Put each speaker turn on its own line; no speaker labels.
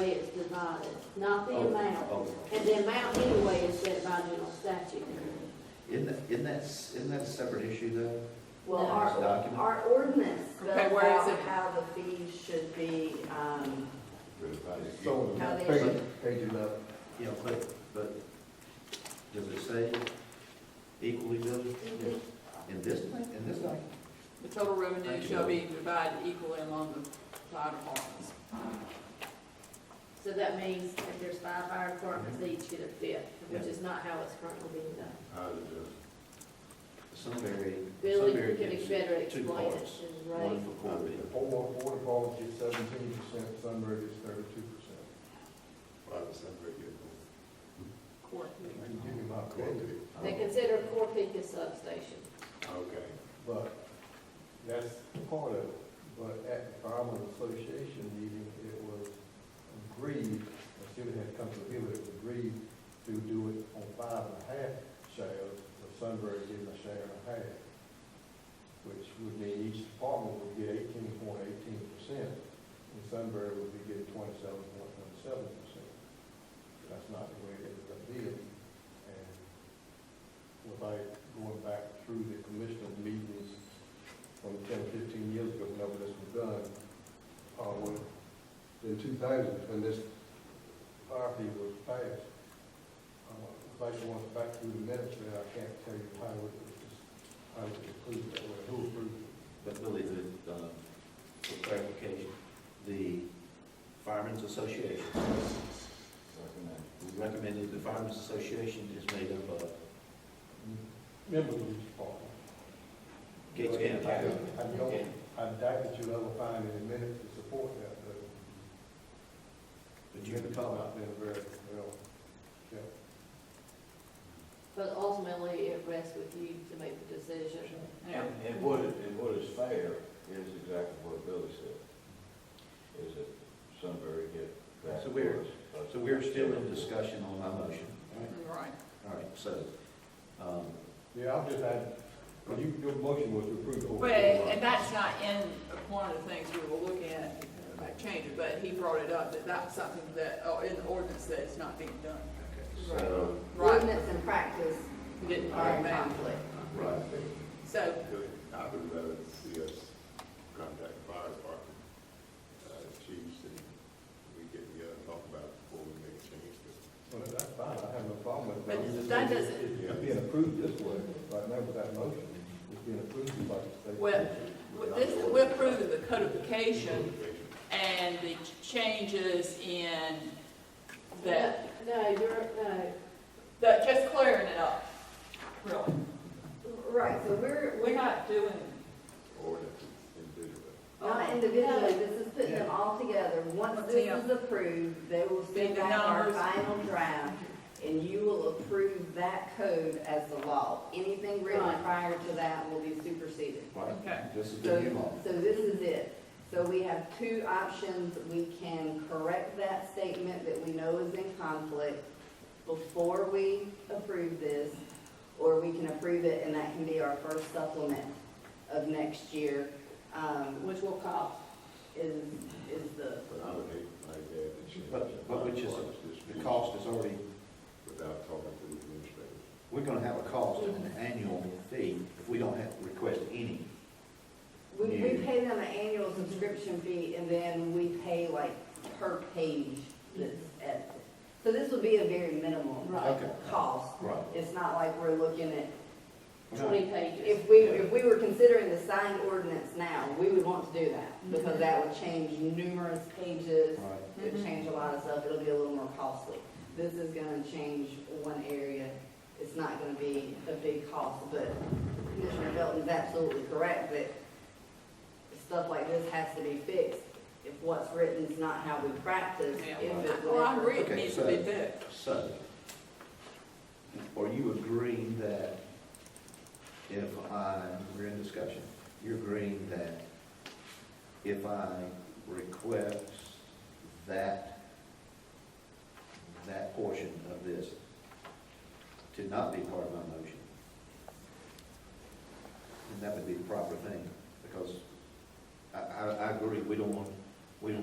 is divided, not the
Oh,
amount.
oh.
And the amount anyway is set by general statute.
Isn't that, isn't that, isn't that a separate issue though?
Well,
No.
our,
Document?
our ordinance goes
Okay, where is
out
it?
how the fees should be, um,
So,
how they
page,
should,
page eleven.
Yeah, but, but does it say equally divided
Mhm.
Mm-hmm.
in this, thing- in this document?
The total revenue
Thank you.
shall be divided equally among the fire departments.
So that means if there's five fire departments, they each get a fifth, which
Yeah.
is not how it's currently being done.
Uh,
Some very,
Billy
some very
could better explain it,
parts.
and Ray.
One for Corby.
Four, four departments get seventeen percent, Sunbury gets thirty-two percent.
Court.
I can give you my opinion,
They consider Core Peak a substation.
Okay.
but that's part of it. But at the Firemen's Association meeting, it was agreed, I should have come to the people, it was agreed to do it on five and a half shares, with Sunbury getting a share and a half, which would mean each department would get eighteen point eighteen percent, and Sunbury would be getting twenty-seven point twenty-seven percent. That's not the way it ended up being, and without going back through the commissioners' meetings from ten or fifteen years ago, whenever this was done, uh, when, in two thousand, when this fire fee was passed. Uh, If I should want back through the minutes, then I can't tell you how it was, how it was approved that way, who approved it.
But Billy, the, um, for clarification, the Firemen's Association we recommended, the Firemen's Association is made up of
Members of each department.
Gates County.
I don't- I don't, I doubt that you'll ever find any minutes to support that, but
But you
you've
can
been
call
talking
out.
about being very, well, yeah.
But ultimately, it rests with you to make the decision.
Yeah.
And, and what, is- and what is fair is exactly what Billy said, is that Sunbury get that.
So we're-
plus-
So we're still in discussion on my motion.
Right.
All right, so, um,
Yeah, I'm just adding, well, you, your motion was to approve.
But, and that's not in one of the things we will look at, like change it, but he brought it up, that that's something that, oh, in the ordinance that it's not being done.
okay, so,
Right,
ordinance and practice
didn't
are
bring
in
that.
conflict.
Right.
So,
I would rather see us contact the fire department, uh, chiefs, and we get together and talk about it before we make a change.
Well, that's fine, I have no problem with that.
But
I'm just
that
saying
doesn't-
it- It's being approved this way, right now with that motion, it's being approved by the state.
Well, with this, we're approving the codification
Motivation.
and the changes in that,
No, you're, no,
that, just clearing it up, really.
Right, so we're,
We're not doing,
Or that it's individual.
Not individually, this is putting them all together. Once this
Yeah.
is approved, they will send
the
back our
numbers.
final draft, and you will approve that code as the law. Anything written
Right.
prior to that will be superseded.
Okay.
right, this is the
So,
new law.
so this is it. So we have two options. We can correct that statement that we know is in conflict before we approve this, or we can approve it, and that can be our first supplement of next year. Um,
which will cost.
is, is the,
But I would hate like that to change.
But- but which is-
this
The cost is already,
Without talking to the administrator.
we're gonna have a cost and an annual fee if we don't have, request any.
we, we
Yeah.
pay them an annual subscription fee and then we pay like per page that's at, so this would be a very minimal
Okay.
cost.
Right.
It's not like we're looking at,
Twenty pages.
if we, if we were considering the signed ordinance now, we would want to do that because that would change numerous pages.
Right.
It would change a lot of stuff. It'll be a little more costly. This is gonna change one area. It's not gonna be a big cost, but Commissioner Felton's absolutely correct that stuff like this has to be fixed. If what's written's not how we practice,
Yeah.
if it
Well, I
whatever.
agree, it
Okay,
needs to
so-
be fixed.
So, are you agreeing that if I, we're in discussion, you're agreeing that if I request that, that portion of this to not be part of my motion, then that would be the proper thing, because I, I, I agree, we don't want, we don't